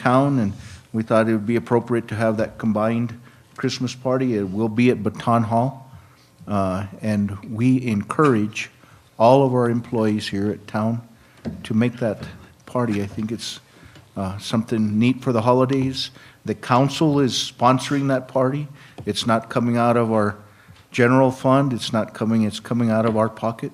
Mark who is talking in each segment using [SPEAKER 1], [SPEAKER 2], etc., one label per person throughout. [SPEAKER 1] town, and we thought it would be appropriate to have that combined Christmas party. It will be at Baton Hall. Uh, And we encourage all of our employees here at town to make that party. I think it's uh, something neat for the holidays. The council is sponsoring that party. It's not coming out of our general fund, it's not coming, it's coming out of our pocket.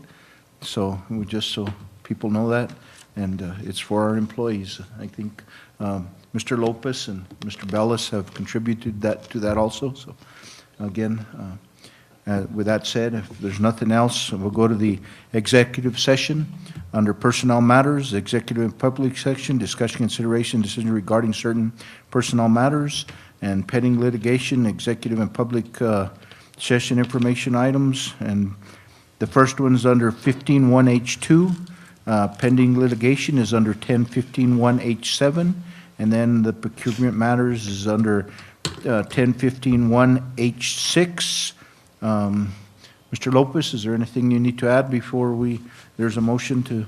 [SPEAKER 1] So, we just so people know that, and uh, it's for our employees. I think um, Mr. Lopez and Mr. Bellis have contributed that, to that also, so, again, uh, uh, with that said, if there's nothing else, we'll go to the executive session. Under personnel matters, executive and public section, discussion, consideration, decision regarding certain personnel matters, and pending litigation, executive and public uh, session information items, and the first one's under 151H2, uh, pending litigation is under 10151H7, and then the procurement matters is under uh, 10151H6. Um, Mr. Lopez, is there anything you need to add before we, there's a motion to,
[SPEAKER 2] No,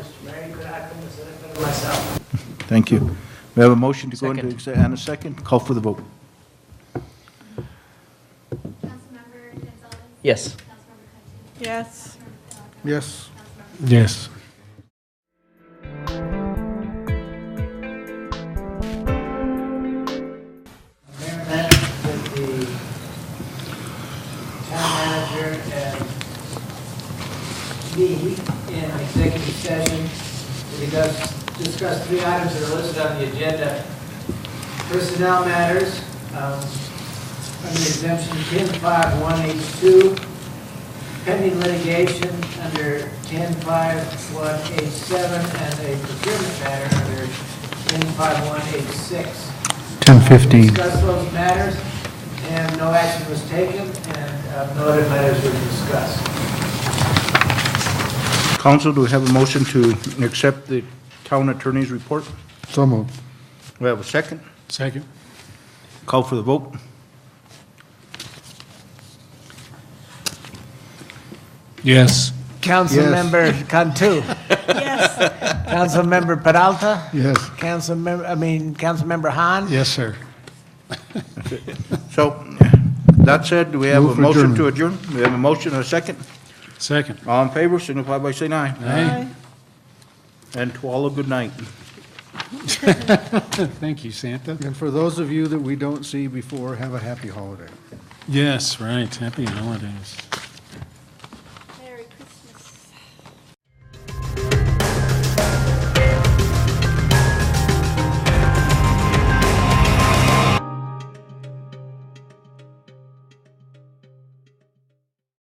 [SPEAKER 2] Mr. Mayor, you could act on this, I better myself.
[SPEAKER 1] thank you. We have a motion to go into,
[SPEAKER 3] Second.
[SPEAKER 1] exe- and a second, call for the vote.
[SPEAKER 4] Councilmember Gonzalez?
[SPEAKER 3] Yes.
[SPEAKER 4] Councilmember Hutchins?
[SPEAKER 5] Yes.
[SPEAKER 1] Yes.
[SPEAKER 6] Yes.
[SPEAKER 2] Mayor Matt, that the town manager and me in executive session to discuss, discuss three items that are listed on the agenda. Personnel matters, um, under exemption ten five one H two, pending litigation under ten five one H seven, and a procurement matter under ten five one H six.
[SPEAKER 6] 10:15.
[SPEAKER 2] Discuss those matters, and no action was taken, and uh, no other matters were discussed.
[SPEAKER 1] Council, do we have a motion to accept the town attorney's report?
[SPEAKER 6] So moved.
[SPEAKER 1] We have a second,
[SPEAKER 6] Second.
[SPEAKER 1] call for the vote.
[SPEAKER 6] Yes.
[SPEAKER 2] Councilmember Cantu.
[SPEAKER 5] Yes.
[SPEAKER 2] Councilmember Peralta.
[SPEAKER 6] Yes.
[SPEAKER 2] Councilmember, I mean, Councilmember Han.
[SPEAKER 6] Yes, sir.
[SPEAKER 1] So, that said, do we have a
[SPEAKER 6] Move for
[SPEAKER 1] motion to adjourn? We have a motion and a second.
[SPEAKER 6] Second.
[SPEAKER 1] All in favor, signify by saying aye.
[SPEAKER 6] Aye.
[SPEAKER 1] And to all a good night.
[SPEAKER 6] Thank you, Santa.
[SPEAKER 7] And for those of you that we don't see before, have a happy holiday.
[SPEAKER 6] Yes, right. Happy holidays.